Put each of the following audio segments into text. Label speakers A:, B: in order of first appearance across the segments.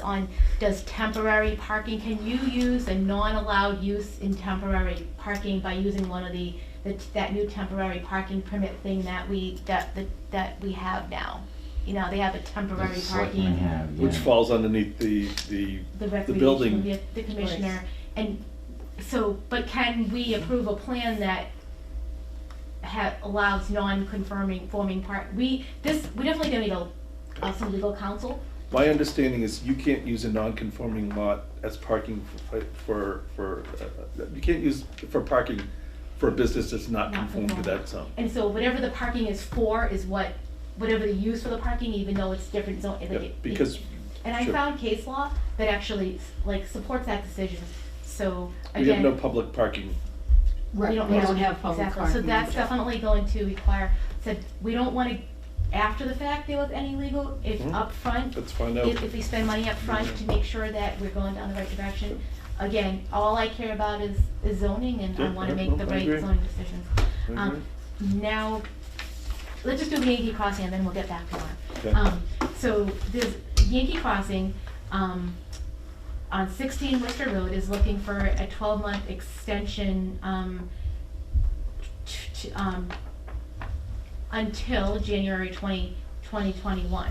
A: on does temporary parking, can you use a non-allowed use in temporary parking by using one of the, the- that new temporary parking permit thing that we, that, that- that we have now? You know, they have a temporary
B: That's what we
A: parking,
B: have,
C: Which
B: yeah.
C: falls underneath the, the,
A: the
C: building.
A: recreation, the, the commissioner. And so, but can we approve a plan that ha allows non-conforming, forming park? We, this, we definitely gonna need a, uh, some legal counsel,
C: my understanding is you can't use a non-conforming lot as parking for, for, for, uh, you can't use for parking for a business that's not
A: Not
C: conforming to
A: conforming.
C: that zone.
A: And so whatever the parking is for is what, whatever the use for the parking, even though it's different zone. like
C: Yeah,
A: it-
C: Because,
A: And I
C: sure.
A: found case law that actually like supports that decision, so again.
C: we have no public parking.
A: we
D: Right, we don't have public
A: Exactly, so
D: parking.
A: that's definitely going to require, said, we don't wanna, after the fact, deal with any legal, if
C: Mhm.
A: upfront,
C: Let's find out.
A: if, if we spend money up front to make sure that we're going down the right direction. Again, all I care about is, is zoning and I
C: Yeah,
A: wanna
C: yeah,
A: make the
C: no, I
A: right
C: agree.
A: zoning decisions. Um, now, let's just do Yankee Crossing and then we'll get back to
C: Okay.
A: that. Um, so there's Yankee Crossing, um, on sixteen Worcester Road is looking for a twelve-month extension, um, t- t- um, until January 20, 2021.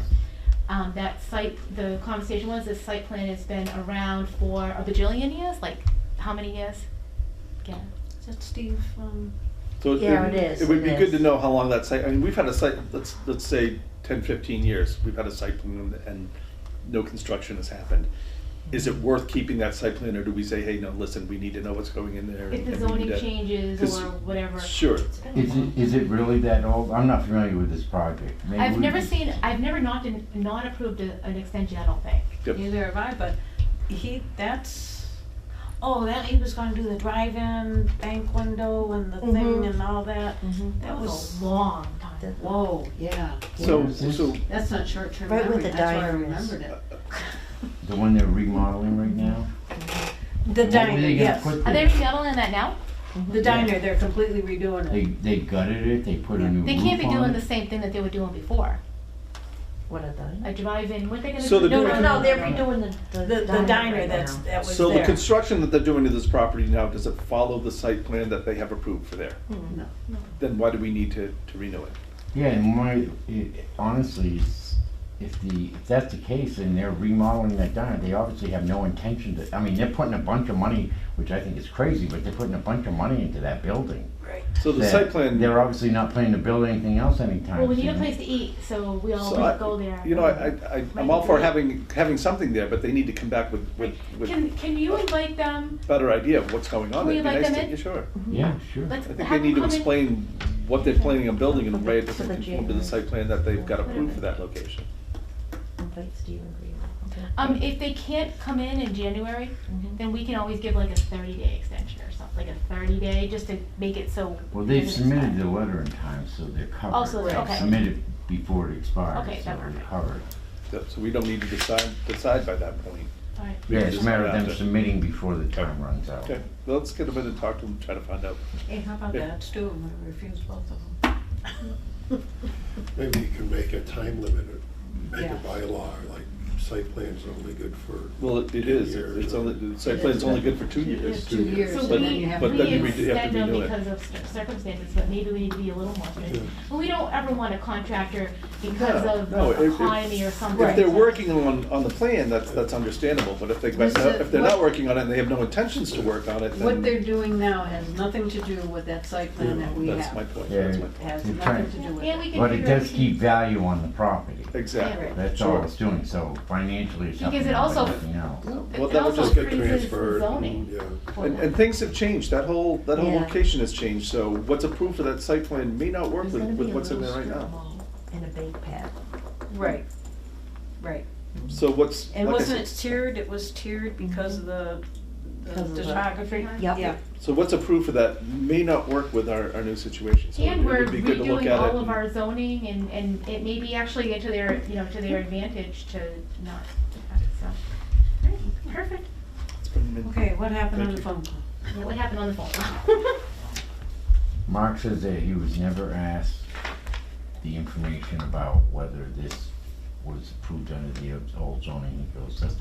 A: Um, that site, the conversation was, this site plan has been around for a bajillion years, like, how many years? Yeah.
D: Is that Steve, um,
C: So
D: Yeah, it is,
C: It would
D: it
C: be good to
D: is.
C: know how long that site, I mean, we've had a site, let's, let's say 10, 15 years, we've had a site plan and no construction has happened. Is it worth keeping that site plan or do we say, hey, no, listen, we need to know what's going in there?
A: If
C: and
A: the
C: we need
A: zoning
C: to-"
A: changes
C: 'cause-
A: or whatever.
C: Sure,
B: Is it, is it really that old? I'm not familiar with this project. Maybe
A: I've
B: we
A: never
B: can-
A: seen, I've never not, been- not approved a- an extension, I don't think.
C: Yep.
D: neither have I, but he, that's, oh, that, he was gonna do the drive-in bank window and the thing
E: Mhm.
D: and all that.
A: That
D: That
A: was
D: was,
A: a long time.
D: whoa, yeah,
C: so,
B: Where is
C: so
B: this?
D: that's not short-term
E: Right with
D: memory,
E: the
D: that's why I
E: diamonds.
D: remembered
C: Oh,
D: it.
B: The one they're remodeling right now?
D: The
B: What were they
D: diner,
B: gonna
D: yes,
B: put
A: Are they
B: there?
A: remodeling that now?
D: the diner, they're completely redoing
B: They,
D: it.
B: they gutted it, they put a
D: Yeah.
B: new roof on
A: They
B: it.
A: can't be doing the same thing that they were doing before.
E: What are they?
A: A drive-in, what they gonna do?
C: So the
A: No, no,
C: drive-in-
A: no,
E: No, they're redoing the,
D: The,
E: the
D: the diner
E: right
D: that's,
E: now.
D: that was
C: So the
D: there.
C: construction that they're doing to this property now, does it follow the site plan that they have approved for there?
A: Hmm.
D: No.
C: Then why do we need to, to renew it?
B: Yeah, and my, it- honestly, it's- if the, if that's the case and they're remodeling that diner, they obviously have no intention to, I mean, they're putting a bunch of money, which I think is crazy, but they're putting a bunch of money into that building.
D: Right.
C: So the
B: that
C: site plan.
B: They're obviously not planning to build anything else anytime
A: Well, we need a
B: soon.
A: place to eat, so we
C: so I-
A: always go there.
C: You know, I, I, I'm all for having, having something there, but they need to come back with, with, with
A: Can, can you invite them?
C: a better idea of what's going on.
A: Can we
C: It'd be
A: invite
C: nice
A: them
C: to-
A: in?
B: Yeah,
C: yeah, Sure.
B: sure.
A: Let's
C: I think they
A: have them
C: need to
A: come in.
C: explain what they're planning on building in a way that
E: For
C: doesn't
E: the
C: conform to the
E: January.
C: site plan that they've got approved for that location.
E: Invite Stephen Green. Okay.
A: Um, if they can't come in in January,
E: Mhm.
A: then we can always give like a thirty-day extension or something, like a thirty-day, just to make it so.
B: Well,
A: it
B: they've
A: doesn't
B: submitted
A: expire.
B: the letter in time, so they're covered.
A: Also,
B: They
A: Oh, okay.
B: Submitted before it expires,
A: Okay,
B: so
A: that's
B: they're
A: perfect.
B: covered.
C: So so we don't need to decide, decide by that point.
A: All right.
B: Yeah, it's a matter of them
C: Okay.
B: submitting before the time runs out.
C: Okay, well, let's get them in and talk to them, try to find out.
D: Hey, how about
C: Yeah.
D: that, Stu, I refuse both of them.
F: Maybe you can make a time limit, or make a
D: Yeah.
F: bylaw, like site plan's only good for.
C: Well, it it is, It- it's only, the site plan's only good for two years.
D: Two years,
A: So
D: and
C: But-
D: then you have.
A: we,
C: but
A: we
C: then you redo- have to
A: extend them
C: redo it.
A: because of cir- circumstances, but maybe we need to be a little more
F: Yeah.
A: strict. But we don't ever want a contractor because
C: No,
A: of
C: no, if-
A: the
C: if-
A: economy or something.
C: If they're working on, on the plan, that's, that's understandable, but if they,
D: This is-
C: if they're not
D: what-
C: working on it and they have no intentions to work on it,
D: What they're
C: then
D: doing now has nothing to do with that site plan that we
C: that's my
D: have.
C: point,
B: Yeah.
C: that's my point.
D: Has
B: You're
D: nothing
B: trying-
D: to do with
A: And
D: it.
A: we can
B: But it
A: figure out
B: does keep value on the property.
C: Exactly.
B: That's
C: Sure.
B: all it's doing, so financially it's
A: Because
B: nothing
A: it
B: like
A: also-
B: nothing else.
C: Well,
A: It
C: that would
A: also
C: just
F: Get
A: freezes the
F: transferred,
A: zoning.
F: Yeah,
A: for
C: And,
A: them.
C: and things have changed, that whole, that whole
E: Yeah.
C: location has changed, so what's approved for that site plan may not work with, with what's in there right now.
E: And a bake pad.
D: Right, right.
C: So what's.
D: And
C: like I
D: wasn't it
C: said,
D: tiered, it was tiered because of the, the
E: Because of the-
D: topography?
E: Yep.
D: Yeah.
C: So what's approved for that may not work with our, our new situation, so it
A: And we're
C: would be good to look
A: redoing
C: at it.
A: all of
C: and-
A: our zoning and, and it may be actually to their, you know, to their advantage to not, so. Alright, Perfect.
C: Let's put 'em in.
D: Okay, what happened on
C: Thank you.
D: the phone call?
A: Yeah, What happened on the phone?
B: Mark says that he was never asked the information about whether this was approved under the old zoning. He goes, that's